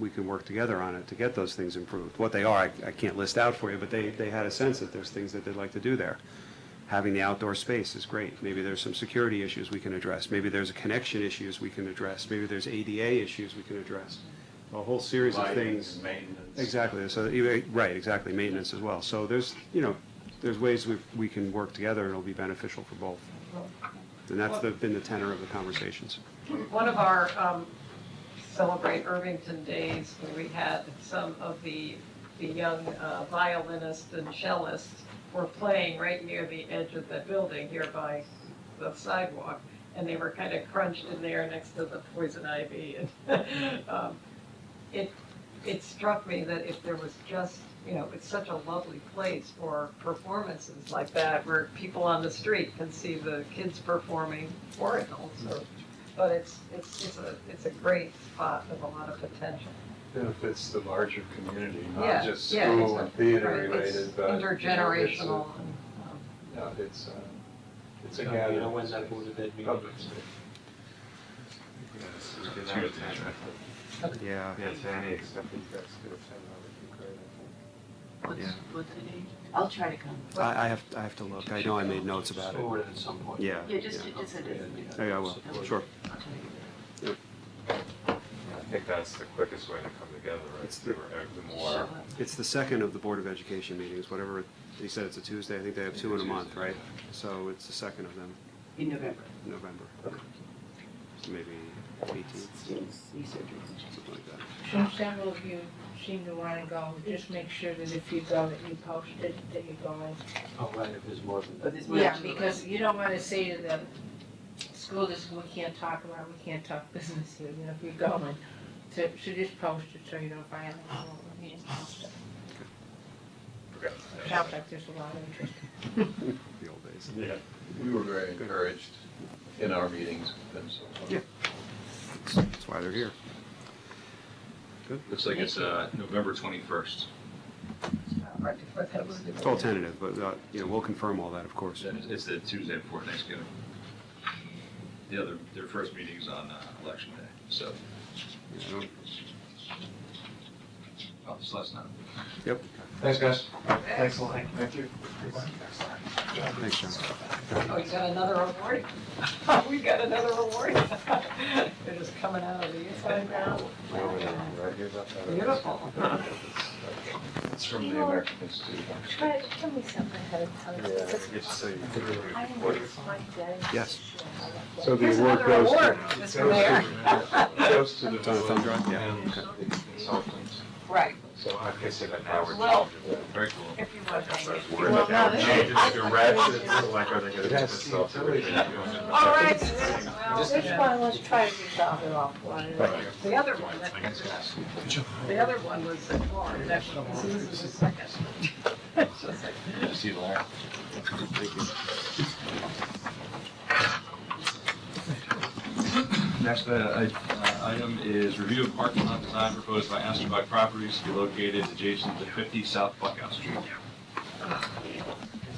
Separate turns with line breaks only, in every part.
we can work together on it to get those things improved. What they are, I, I can't list out for you, but they, they had a sense that there's things that they'd like to do there. Having the outdoor space is great. Maybe there's some security issues we can address. Maybe there's connection issues we can address. Maybe there's ADA issues we can address. A whole series of
Lighting,
things.
Maintenance.
Exactly, so, you- right, exactly, maintenance as well. So there's, you know, there's ways we, we can work together, and it'll be beneficial for both. And that's the- been the tenor of the conversations.
One of our um, Celebrate Irvington days, where we had some of the, the young uh, violinists and cellists were playing right near the edge of the building here by the sidewalk, and they were kind of crunched in there next to the poison ivy. and, um, It, it struck me that if there was just, you know, it's such a lovely place for performances like that, where people on the street can see the kids performing, or adults, or but it's, it's, it's a, it's a great spot with a lot of potential.
Benefits the larger community,
Yeah,
not just
yeah,
school and
exactly.
theater
Right, it's
related, but. you know, it's a-
Intergenerational. and, um,
No, it's, uh, it's a
So,
gathering.
You know, when's that Board of Ed meeting?
Public space.
Yeah.
Yeah, to any extent that you guys could attend, that would be great, I think.
Yeah.
What's, what's the date? I'll try to come.
I, I have, I have to look, I know I made notes about it.
Forward it at some point.
Yeah.
Yeah, just,
yeah.
just a date.
Oh, Yeah, I will, sure.
I'll try to.
I think that's the quickest way to come together, right?
It's the-
The
Show
more,
up.
It's the second of the Board of Education meetings, whatever, they said it's a Tuesday, I think they have two in a month, right? So it's the second of them,
In November.
November. So Maybe eighteenth,
Knee surgery.
something like that.
Since several of you seem to want to go, just make sure that if you go, that you post it, that you're going.
Oh, right, if there's more than that.
But this
Yeah,
morning-
because you don't want to say to them, school district, we can't talk about, we can't talk business here, you know, if you're going. So, so just post it so you don't violate all the meetings and stuff.
Okay.
Sounds like there's a lot of interest.
the old days.
Yeah, we were very encouraged in our meetings with them so far.
Yeah. That's why they're here.
Looks like it's uh, November 21st.
right before Thanksgiving.
It's all tentative, but, uh, you know, we'll confirm all that, of course.
So It's the Tuesday before Thanksgiving. The other, their first meeting's on uh, Election Day, so,
You know?
oh, it's last night.
Yep,
Thanks, guys.
Thanks
a lot. Thank you.
thanks, John.
Oh, you got another award? We got another award. They're just coming out of the inside now.
Right here, that- that-
Beautiful.
It's from the American Institute.
Fred, tell me something ahead of time.
Yeah,
Because
it's so you-
I am my daddy.
Yes.
So the
Here's
award
another
goes
award,
to.
Mr.
goes
Mayor.
to- Goes to the.
It's on a thumb drive? Yeah,
and the Consultants.
Right,
So I guess it
now
now.
we're
Well-
changing.
Very cool.
if you want to hang it.
Well, now this-
Changes to reds, it's like, are they gonna do
That's
this
the
off the
utility.
original?
All right.
This
well,
one, let's try to resolve it offline.
The other one, that- the other one was at Florida, that was this is the second. It's just like-
See you later. Next uh, i- uh, item is review of parking lot design proposed by Astrobuck Properties to be located adjacent to 50 South Buckout Street.
Can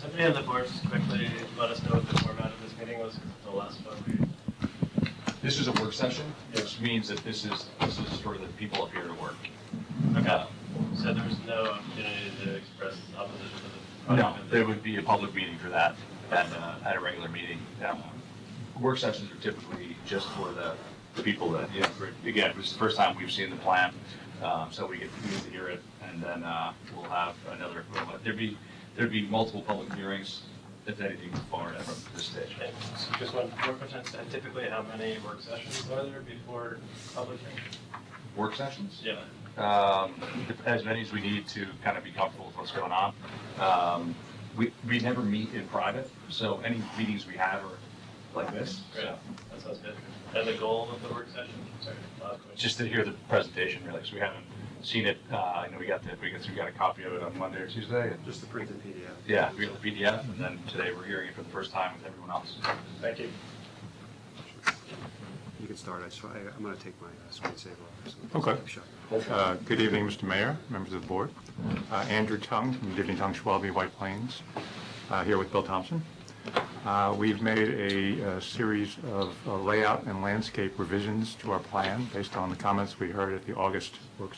somebody on the board just quickly let us know what the format of this meeting was, 'Cause the last one we
This is a work session, which means that this is, this is for the people up here to work.
Okay. said there was no opportunity to express opposition to the
No,
project.
there would be a public meeting for that, and, uh, at a regular meeting. Um, Work sessions are typically just for the, the people that, you know, for- again, this is the first time we've seen the plan, um, so we get we get to hear it, and then, uh, we'll have another, we'll- there'd be, there'd be multiple public hearings, if anything, far from this stage.
Okay, so Just one more question, So typically how many work sessions are there before public hearing?
Work sessions?
Yeah.
um, as many as we need to kind of be comfortable with what's going on. Um, we, we never meet in private, so any meetings we have are like this.
Great,
so
that sounds good. And the goal of the work session, sorry, last question.
Just to hear the presentation, really, because we haven't seen it. Uh, I know we got the, we got, we got a copy of it on Monday or Tuesday. and-
Just the printed PDF.
Yeah, we got the PDF, and then today we're hearing it for the first time with everyone else.
Thank you.
You can start, I just, I, I'm gonna take my uh, screensaver off. so-
Okay.
Shut it.
Uh, Good evening, Mr. Mayor, members of the board. Uh, Andrew Tung from Divinity Tung Schwalbe White Plains, uh, here with Bill Thompson.
Uh, We've made a uh, series of uh, layout and landscape revisions to our plan based on the comments we heard at the August work session.